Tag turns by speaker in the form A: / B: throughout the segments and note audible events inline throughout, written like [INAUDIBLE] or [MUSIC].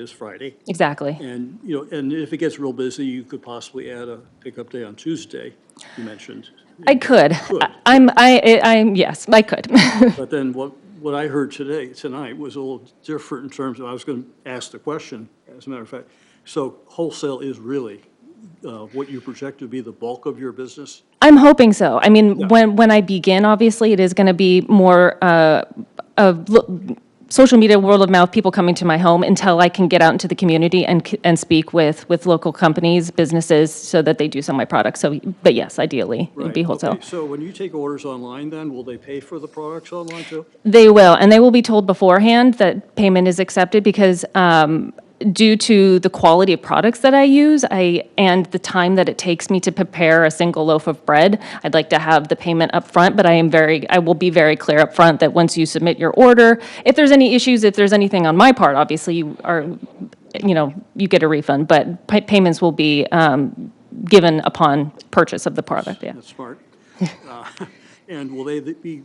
A: is Friday.
B: Exactly.
A: And, you know, and if it gets real busy, you could possibly add a pickup day on Tuesday, you mentioned.
B: I could.
A: Good.
B: I- I'm, I, I- I'm, yes, I could. [LAUGHS]
A: But then what, what I heard today, tonight, was a little different in terms of, I was going to ask the question, as a matter of fact. So wholesale is really uh, what you project to be the bulk of your business?
B: I'm hoping so. I mean, when, when I begin, obviously, it is going to be more uh, of lo- social media, word of mouth, people coming to my home until I can get out into the community and, c- and speak with, with local companies, businesses, so that they do sell my products. So, but yes, ideally, it'd be
A: Right,
B: wholesale.
A: okay. So when you take orders online then, will they pay for the products online too?
B: They will, and they will be told beforehand that payment is accepted because um, due to the quality of products that I use, I and the time that it takes me to prepare a single loaf of bread, I'd like to have the payment up front. But I am very, I will be very clear up front that once you submit your order, if there's any issues, if there's anything on my part, obviously you are, you know, you get a refund. But pa- payments will be um, given upon purchase of the product. Yeah.
A: That's smart. Uh, [LAUGHS] And will they be,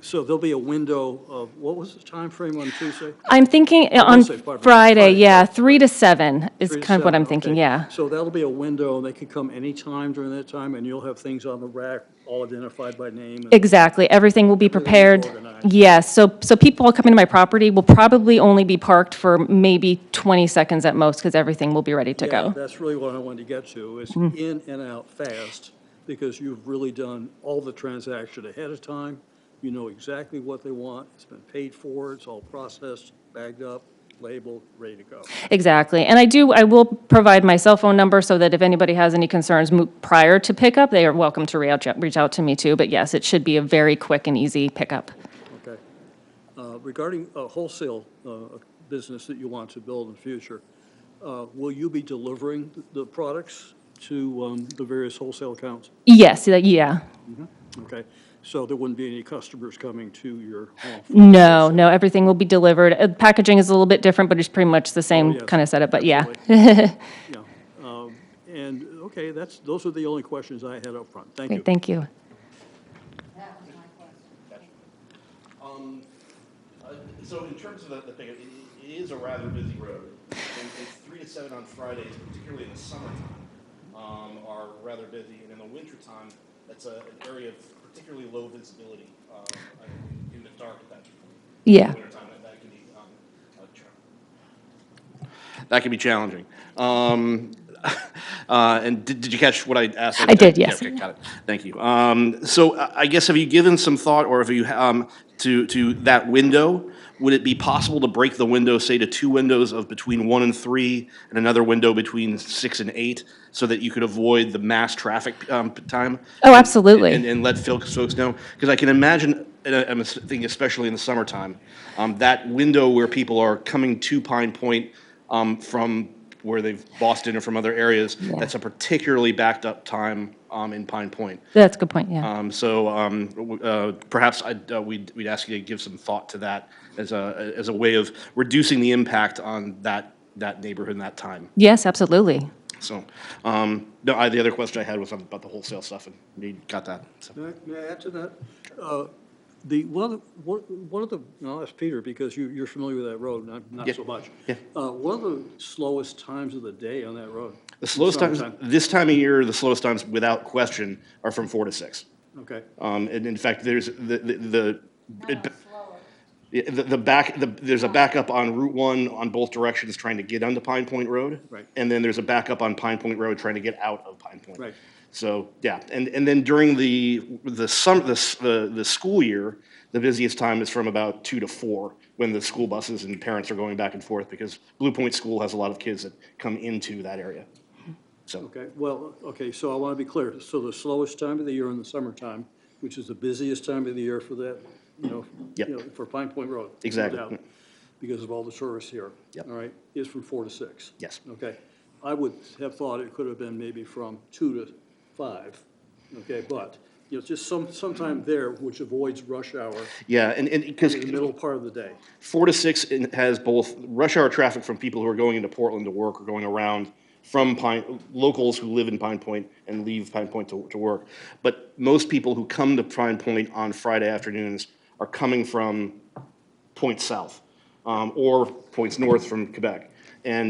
A: so there'll be a window of, what was the time frame on Tuesday?
B: I'm thinking on
A: Wednesday, pardon me.
B: Friday,
A: Friday,
B: yeah, three to seven is
A: Three to
B: kind of what
A: seven,
B: I'm thinking,
A: okay.
B: yeah.
A: So that'll be a window, and they can come anytime during that time, and you'll have things on the rack, all identified by name. and-
B: Exactly, everything will be
A: Everything is
B: prepared.
A: organized.
B: Yes, so, so people coming to my property will probably only be parked for maybe 20 seconds at most, because everything will be ready to
A: Yeah,
B: go.
A: That's really what I wanted to get to, is
B: Mm-hmm.
A: in and out fast, because you've really done all the transaction ahead of time. You know exactly what they want, it's been paid for, it's all processed, bagged up, labeled, ready to go.
B: Exactly, and I do, I will provide my cell phone number so that if anybody has any concerns mo- prior to pickup, they are welcome to reach out, reach out to me too, but yes, it should be a very quick and easy pickup.
A: Okay. Uh, Regarding a wholesale uh, business that you want to build in the future, uh, will you be delivering th- the products to um, the various wholesale accounts?
B: Yes, that- yeah,
A: Okay, so there wouldn't be any customers coming to your home? for
B: no,
A: wholesale?
B: no, everything will be delivered. Uh, Packaging is a little bit different, but it's pretty much the same
A: Oh, yes,
B: kind of setup, but yeah.
A: absolutely.
B: [LAUGHS]
A: Yeah. Um, And, okay, that's, those are the only questions I had up front. Thank you.
B: Great, thank you.
C: Uh, So in terms of the, the thing, it, it is a rather busy road. And it's three to seven on Fridays, particularly in the summertime, um, are rather busy. And in the wintertime, that's a, an area of particularly low visibility, um, in- in the dark at that.
B: Yeah.
C: Wintertime, that, that can be, um, a challenge that can be challenging. Um, [LAUGHS] uh, and did, did you catch what I asked?
B: I did, yes.
C: okay, got it. Thank you. Um, so I I guess have you given some thought, or have you um, to to that window? Would it be possible to break the window, say, to two windows of between one and three, and another window between six and eight, so that you could avoid the mass traffic um, time?
B: Oh, absolutely.
C: And, and let Phil- folks know, because I can imagine, and I- I'm thinking especially in the summertime, um, that window where people are coming to Pine Point um, from where they've Boston or from other areas, that's a particularly backed up time um, in Pine Point.
B: That's a good point, yeah.
C: Um, so um, w- uh, perhaps I'd, uh, we'd, we'd ask you to give some thought to that as a as a way of reducing the impact on that that neighborhood and that time.
B: Yes, absolutely.
C: So um, no, I, the other question I had was about the wholesale stuff, and you got that. So.
A: May I- may I add to that? Uh, The, one, of- one one of the, and I'll ask Peter, because you, you're familiar with that road, and I'm not
C: Yeah,
A: so much.
C: yeah.
A: Uh, What are the slowest times of the day on that road?
C: The slowest times,
A: Summertime.
C: this time of year, the slowest times without question are from four to six.
A: Okay,
C: Um, and in fact, there's the, the, the. it- Yeah, The, the back, the, there's a backup on Route One on both directions trying to get onto Pine Point Road.
A: Right.
C: And then there's a backup on Pine Point Road trying to get out of Pine Point.
A: Right.
C: So, yeah, and, and then during the, the summer, the, s- the, the school year, the busiest time is from about two to four, when the school buses and parents are going back and forth, because Blue Point School has a lot of kids that come into that area. So.
A: okay, well, okay, so I want to be clear. So the slowest time of the year in the summertime, which is the busiest time of the year for that, you know,
C: Yep.
A: you know, for Pine Point Road. no
C: Exactly.
A: doubt, Because of all the tourists here.
C: Yep.
A: All right, is from four to six.
C: Yes.
A: Okay. I would have thought it could have been maybe from two to five, okay, but, you know, just some, sometime there which avoids rush hour
C: Yeah, and, and, because
A: in the middle part of the day.
C: four to six in- has both rush hour traffic from people who are going into Portland to work or going around from Pine, locals who live in Pine Point and leave Pine Point to, to work. But most people who come to Pine Point on Friday afternoons are coming from points south um, or points north from Quebec. and